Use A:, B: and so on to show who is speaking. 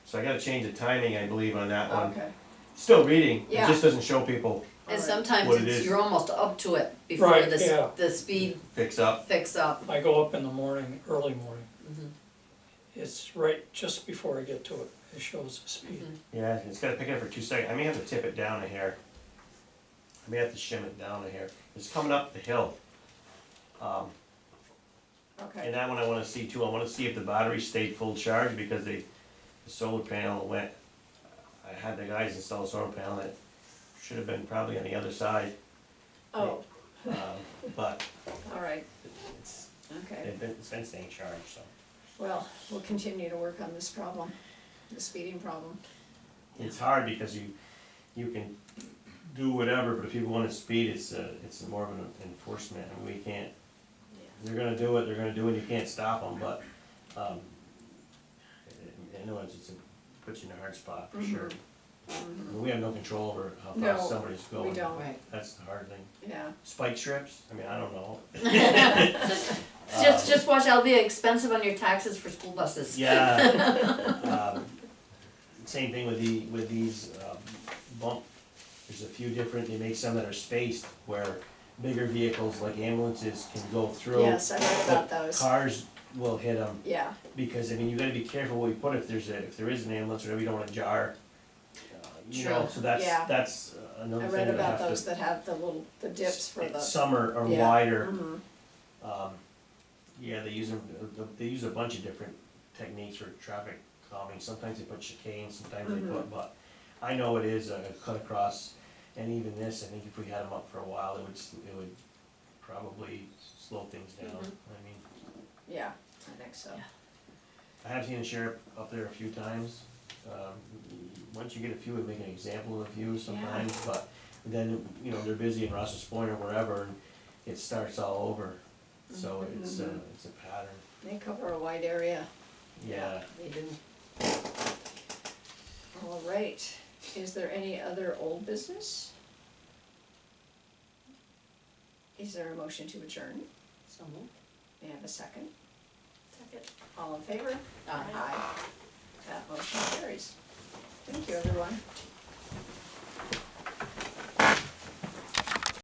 A: So I gotta change the timing, I believe, on that one.
B: Okay.
A: Still reading, it
C: Yeah.
A: just doesn't show people
C: And
B: Alright.
C: sometimes
A: What it
C: it's,
A: is.
C: you're almost up to it before
D: Right,
C: the,
D: yeah.
C: s- the speed
A: picks up.
C: picks up.
D: I go up in the morning, early morning.
C: Mhm.
D: It's right just before I get to it, it shows the speed.
A: Yeah, it's gotta pick it up for two seconds. I may have to tip it down a hair. I may have to shim it down a hair. It's coming up the hill. Um,
B: Okay,
A: And that one I wanna see too, I wanna see if the battery stayed full charge because they, the solar panel went, I had the guys install a solar panel that should have been probably on the other side,
B: oh,
A: um, but
B: all right,
A: it's,
B: okay.
A: it's been, it's been staying charged, so.
B: Well, we'll continue to work on this problem, the speeding problem.
A: It's hard because you, you can do whatever, but if people wanna speed, it's a, it's more of an enforcement and we can't, they're gonna do it, they're gonna do it, you can't stop them, but, um, in other words, it's, a- puts you in a hard spot for sure.
B: Mhm.
A: We have no control over how
B: No,
A: fast somebody's going.
B: We don't,
C: Right.
A: That's the hard thing.
B: yeah,
A: Spike strips, I mean, I don't know.
C: Just, just watch, that'll be expensive on your taxes for school buses.
A: Yeah. Um, Same thing with the, with these um, bump, there's a few different, they make some that are spaced where bigger vehicles like ambulances can go through.
B: yes, I heard about
A: but
B: those,
A: Cars will hit them,
B: yeah,
A: because I mean, you gotta be careful what you put if there's a, if there is an ambulance or whatever, you don't wanna jar. uh, You know,
C: True.
A: so that's,
B: Yeah.
A: that's uh,
B: I
A: another thing
B: read
A: that I have
B: about
A: to.
B: those that have the little, the dips for the.
A: Some are, are
B: Yeah,
A: wider.
B: mhm.
A: Um, yeah, they use them, they use a bunch of different techniques for traffic calming, sometimes they put chicanes, sometimes they put, but I know it is a cut across, and even this, I think if we had them up for a while, it would, s- it would probably slow things down, I mean,
B: Yeah, I think so.
A: I have seen the sheriff up there a few times, um, once you get a few, we make an example of a few sometimes, but then, you know, they're busy in Ross's Point or wherever, and it starts all over, so it's a, it's a pattern.
B: They cover a wide area.
A: Yeah,
C: They do.
B: All right, is there any other old business? Is there a motion to adjourn?
C: So moved.
B: May I have a second? Second. All in favor? Aye. That motion carries. Thank you, everyone.